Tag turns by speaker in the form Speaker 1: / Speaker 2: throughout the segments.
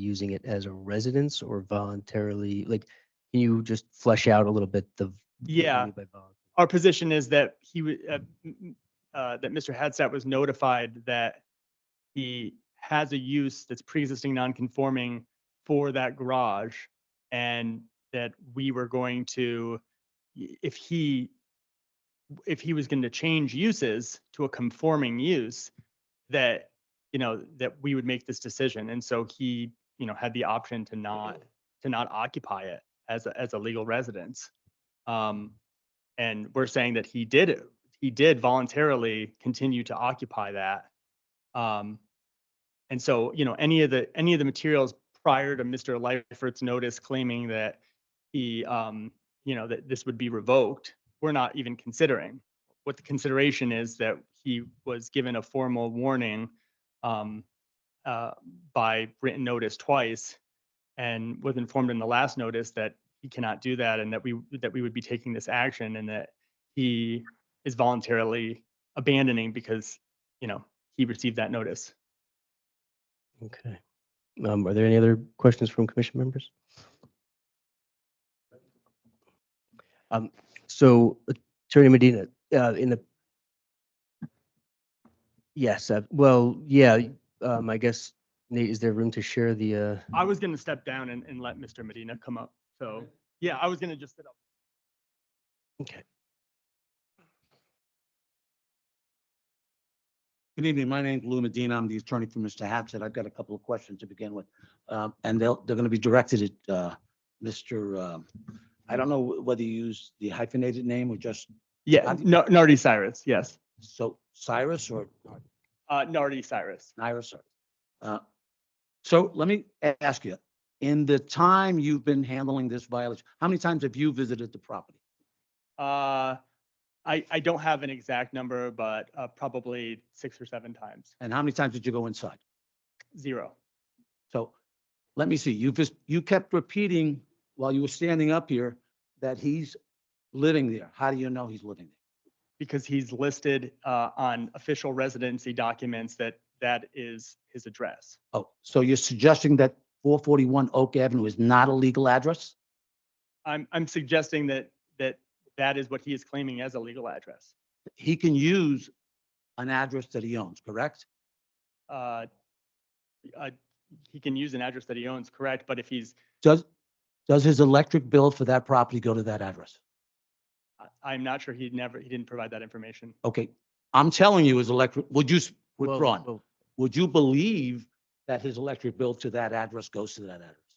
Speaker 1: using it as a residence or voluntarily, like, can you just flesh out a little bit the? v- what you
Speaker 2: Yeah.
Speaker 1: mean by volun-
Speaker 2: our position is that he, wa- uh, m- m- uh, that Mr. Hadstat was notified that he has a use that's pre-existing non-conforming for that garage and that we were going to, i- if he, if he was going to change uses to a conforming use, that, you know, that we would make this decision. And so he, you know, had the option to not, to not occupy it as, a as a legal residence. Um, and we're saying that he did, he did voluntarily continue to occupy that. Um, and so, you know, any of the, any of the materials prior to Mr. Lightfoot's notice claiming that he, um, you know, that this would be revoked, we're not even considering. What the consideration is that he was given a formal warning, um, uh, by written notice twice and was informed in the last notice that he cannot do that and that we, that we would be taking this action and that he is voluntarily abandoning because, you know, he received that notice.
Speaker 1: Okay. Um, are there any other questions from commission members? Um, so Attorney Medina, uh, in the. Yes, uh, well, yeah, um, I guess Nate, is there room to share the, uh,
Speaker 2: I was going to step down and, and let Mr. Medina come up. So, yeah, I was going to just sit up.
Speaker 3: Good evening. My name's Lou Medina. I'm the attorney for Mr. Hatstat. I've got a couple of questions to begin with. Um, And they'll, they're going to be directed at uh, Mr., um, I don't know wh- whether you use the hyphenated name or just,
Speaker 2: Yeah,
Speaker 3: I'm-
Speaker 2: Nar- Nardi Cyrus, yes.
Speaker 3: so Cyrus or
Speaker 2: Uh, Nardi Cyrus.
Speaker 3: Cyrus? or- uh, So let me a- ask you, in the time you've been handling this violation, how many times have you visited the property?
Speaker 2: Uh, I, I don't have an exact number, but uh, probably six or seven times.
Speaker 3: And how many times did you go inside?
Speaker 2: Zero.
Speaker 3: So let me see, you just, you kept repeating while you were standing up here that he's living there. How do you know he's living there?
Speaker 2: because he's listed uh, on official residency documents that that is his address.
Speaker 3: Oh, so you're suggesting that four forty-one Oak Avenue is not a legal address?
Speaker 2: I'm, I'm suggesting that, that that is what he is claiming as a legal address.
Speaker 3: He can use an address that he owns, correct?
Speaker 2: Uh, uh, He can use an address that he owns, correct, but if he's,
Speaker 3: Does, does his electric bill for that property go to that address?
Speaker 2: I- I'm not sure he never, he didn't provide that information.
Speaker 3: Okay, I'm telling you, his electric, would you, s-
Speaker 1: Well,
Speaker 3: withdrawn,
Speaker 1: well,
Speaker 3: would you believe that his electric bill to that address goes to that address?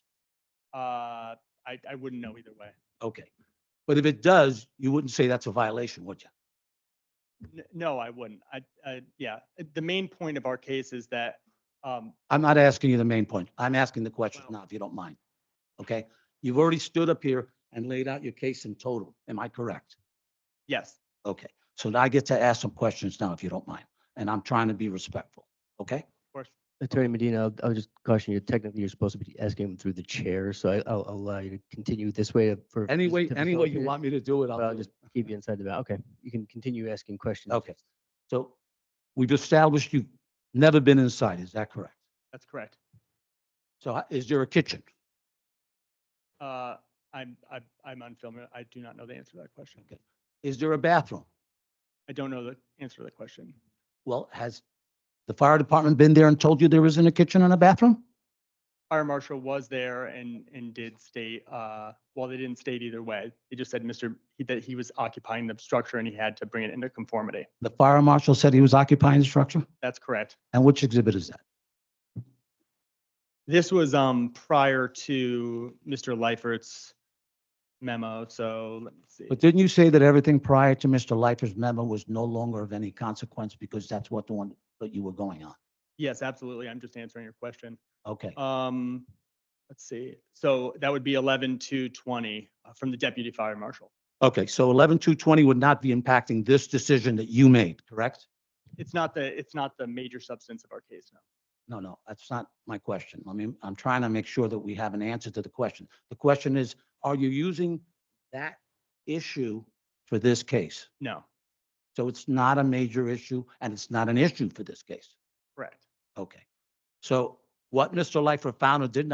Speaker 2: Uh, I, I wouldn't know either way.
Speaker 3: Okay, but if it does, you wouldn't say that's a violation, would you?
Speaker 2: N- No, I wouldn't. I, I, yeah, the main point of our case is that um,
Speaker 3: I'm not asking you the main point. I'm asking the question
Speaker 2: Well-
Speaker 3: now, if you don't mind. Okay? You've already stood up here and laid out your case in total. Am I correct?
Speaker 2: yes,
Speaker 3: Okay. So now I get to ask some questions now, if you don't mind. And I'm trying to be respectful. Okay?
Speaker 2: of course.
Speaker 1: Attorney Medina, I'll, I'll just caution you, technically you're supposed to be asking him through the chair, so I, I'll I'll allow you to continue this way for.
Speaker 3: Any way,
Speaker 1: to
Speaker 3: any way you
Speaker 1: facilitate it.
Speaker 3: want me to do it,
Speaker 1: Well,
Speaker 3: I'll do
Speaker 1: just
Speaker 3: it.
Speaker 1: keep you inside the bound. Okay, you can continue asking questions.
Speaker 3: Okay. So we've established you've never been inside. Is that correct?
Speaker 2: that's correct.
Speaker 3: So ho- is there a kitchen?
Speaker 2: Uh, I'm, I'm- I'm unfamiliar. I do not know the answer to that question.
Speaker 3: Okay. Is there a bathroom?
Speaker 2: I don't know the answer to the question.
Speaker 3: Well, has the fire department been there and told you there isn't a kitchen and a bathroom?
Speaker 2: Fire marshal was there and, and did state, uh, well, they didn't state either way. They just said Mr., that he was occupying the structure and he had to bring it into conformity.
Speaker 3: The fire marshal said he was occupying the structure?
Speaker 2: That's correct.
Speaker 3: And which exhibit is that?
Speaker 2: This was, um, prior to Mr. Leifert's memo, so let me see.
Speaker 3: But didn't you say that everything prior to Mr. Leifer's memo was no longer of any consequence because that's what the one that you were going on?
Speaker 2: Yes, absolutely. I'm just answering your question.
Speaker 3: Okay,
Speaker 2: Um, let's see. So that would be eleven to twenty uh, from the deputy fire marshal.
Speaker 3: okay, so eleven two twenty would not be impacting this decision that you made, correct?
Speaker 2: It's not the, it's not the major substance of our case now.
Speaker 3: No, no, that's not my question. I mean, I'm trying to make sure that we have an answer to the question. The question is, are you using that issue for this case?
Speaker 2: No,
Speaker 3: So it's not a major issue and it's not an issue for this case.
Speaker 2: correct.
Speaker 3: Okay. So what Mr. Leifer found or did not